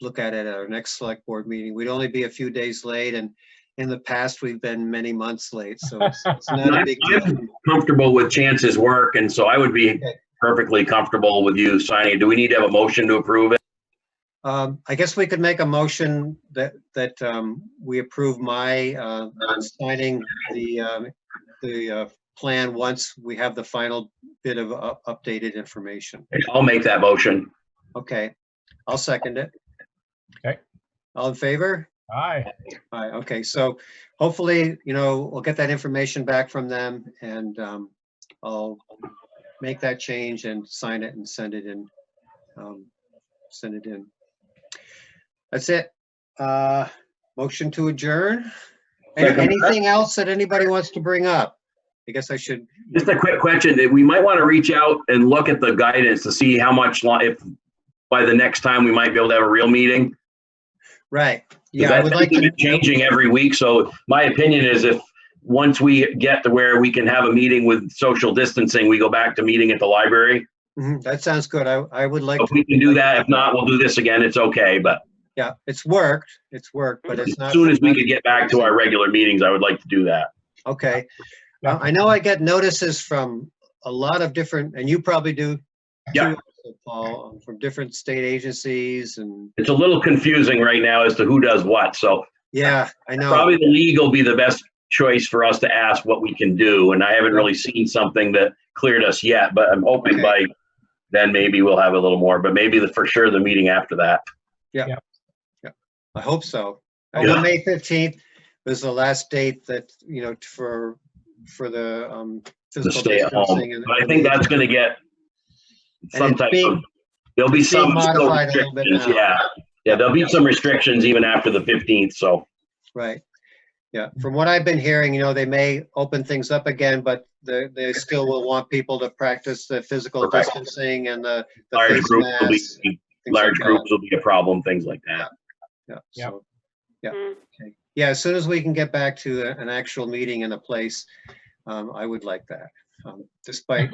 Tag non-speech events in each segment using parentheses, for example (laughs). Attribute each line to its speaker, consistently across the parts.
Speaker 1: look at it at our next select board meeting. We'd only be a few days late and in the past, we've been many months late, so it's it's not a
Speaker 2: I'm
Speaker 1: big deal.
Speaker 2: I'm comfortable with Chance's work, and so I would be perfectly comfortable with you signing. Do we need to have a motion to approve it?
Speaker 1: Um, I guess we could make a motion that, that, um, we approve my, uh, signing the, um, the, uh, plan once we have the final bit of u- updated information.
Speaker 2: I'll make that motion.
Speaker 1: Okay, I'll second it.
Speaker 3: Okay.
Speaker 1: All in favor?
Speaker 3: Aye.
Speaker 1: Aye, okay, so hopefully, you know, we'll get that information back from them and, um, I'll make that change and sign it and send it in. um, Send it in. That's it. Uh, motion to adjourn. Any-
Speaker 2: Second.
Speaker 1: Anything else that anybody wants to bring up? I guess I should,
Speaker 2: Just a quick question, that we might want to reach out and look at the guidance to see how much, li- if by the next time, we might be able to have a real meeting. 'Cause
Speaker 1: right, yeah, I
Speaker 2: that's
Speaker 1: would like
Speaker 2: been
Speaker 1: to,
Speaker 2: Changing every week, so my opinion is if, once we get to where we can have a meeting with social distancing, we go back to meeting at the library.
Speaker 1: Mhm, that sounds good, I, I would like,
Speaker 2: If
Speaker 1: to.
Speaker 2: we can do that, if not, we'll do this again, it's okay, but
Speaker 1: yeah, it's worked, it's worked, but it's
Speaker 2: As
Speaker 1: not.
Speaker 2: soon as we could get back to our regular meetings, I would like to do that.
Speaker 1: Okay. Now, I know I get notices from a lot of different, and you probably do.
Speaker 2: Yeah.
Speaker 1: too, also, Paul, um, from different state agencies and,
Speaker 2: It's a little confusing right now as to who does what, so
Speaker 1: yeah, I know.
Speaker 2: probably the league will be the best choice for us to ask what we can do, and I haven't really seen something that cleared us yet, but I'm hoping
Speaker 1: Okay.
Speaker 2: by then maybe we'll have a little more, but maybe the, for sure, the meeting after that.
Speaker 1: I hope so. I
Speaker 2: Yeah.
Speaker 1: know May fifteenth was the last date that, you know, for, for the, um.
Speaker 2: To
Speaker 1: physical
Speaker 2: stay at home.
Speaker 1: distancing and-
Speaker 2: But I think that's gonna get some
Speaker 1: it's
Speaker 2: type
Speaker 1: being-
Speaker 2: of, there'll be
Speaker 1: it's being
Speaker 2: some still
Speaker 1: modified a little bit
Speaker 2: restrictions,
Speaker 1: now.
Speaker 2: yeah. Yeah, there'll be some restrictions even after the fifteenth, so,
Speaker 1: Right. Yeah, from what I've been hearing, you know, they may open things up again, but they, they still will want people to practice the physical
Speaker 2: Correct.
Speaker 1: distancing and the. the
Speaker 2: large
Speaker 1: face
Speaker 2: groups will
Speaker 1: masks,
Speaker 2: be,
Speaker 1: things like
Speaker 2: large
Speaker 1: that.
Speaker 2: groups will be a problem, things like that.
Speaker 1: Yeah,
Speaker 3: Yep.
Speaker 1: so, yeah,
Speaker 4: Mm.
Speaker 1: okay. Yeah, as soon as we can get back to a- an actual meeting in a place, um, I would like that. Um, (laughs) Despite,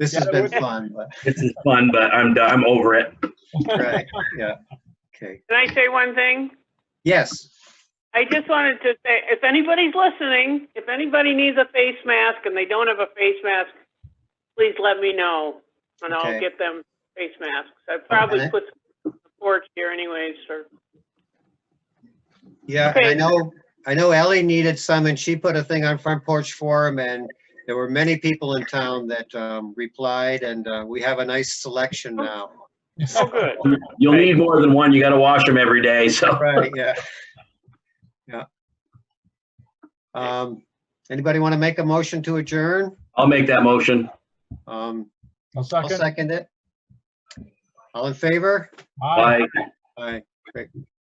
Speaker 1: this
Speaker 3: Yeah,
Speaker 1: has
Speaker 3: it
Speaker 1: been
Speaker 3: would-
Speaker 1: fun, but,
Speaker 2: This is fun, but I'm done. I'm over it.
Speaker 1: right, yeah, okay.
Speaker 4: Can I say one thing?
Speaker 1: Yes,
Speaker 4: I just wanted to say, if anybody's listening, if anybody needs a face mask and they don't have a face mask, please let me know and
Speaker 1: Okay.
Speaker 4: I'll get them face masks. I probably
Speaker 1: Okay.
Speaker 4: put some on the porch here anyways, or,
Speaker 1: yeah, and I
Speaker 4: Okay.
Speaker 1: know, I know Ellie needed some and she put a thing on Front Porch Forum and there were many people in town that, um, replied and, uh, we have a nice selection now.
Speaker 4: oh, good.
Speaker 2: You'll need more than one. You got to wash them every day. So
Speaker 1: Right, (laughs) yeah. Yeah. Um, anybody want to make a motion to adjourn?
Speaker 2: I'll make that motion.
Speaker 1: Um,
Speaker 3: I'll
Speaker 1: I'll
Speaker 3: second.
Speaker 1: second it. All in favor?
Speaker 3: Aye.
Speaker 2: Bye.
Speaker 1: Aye, great.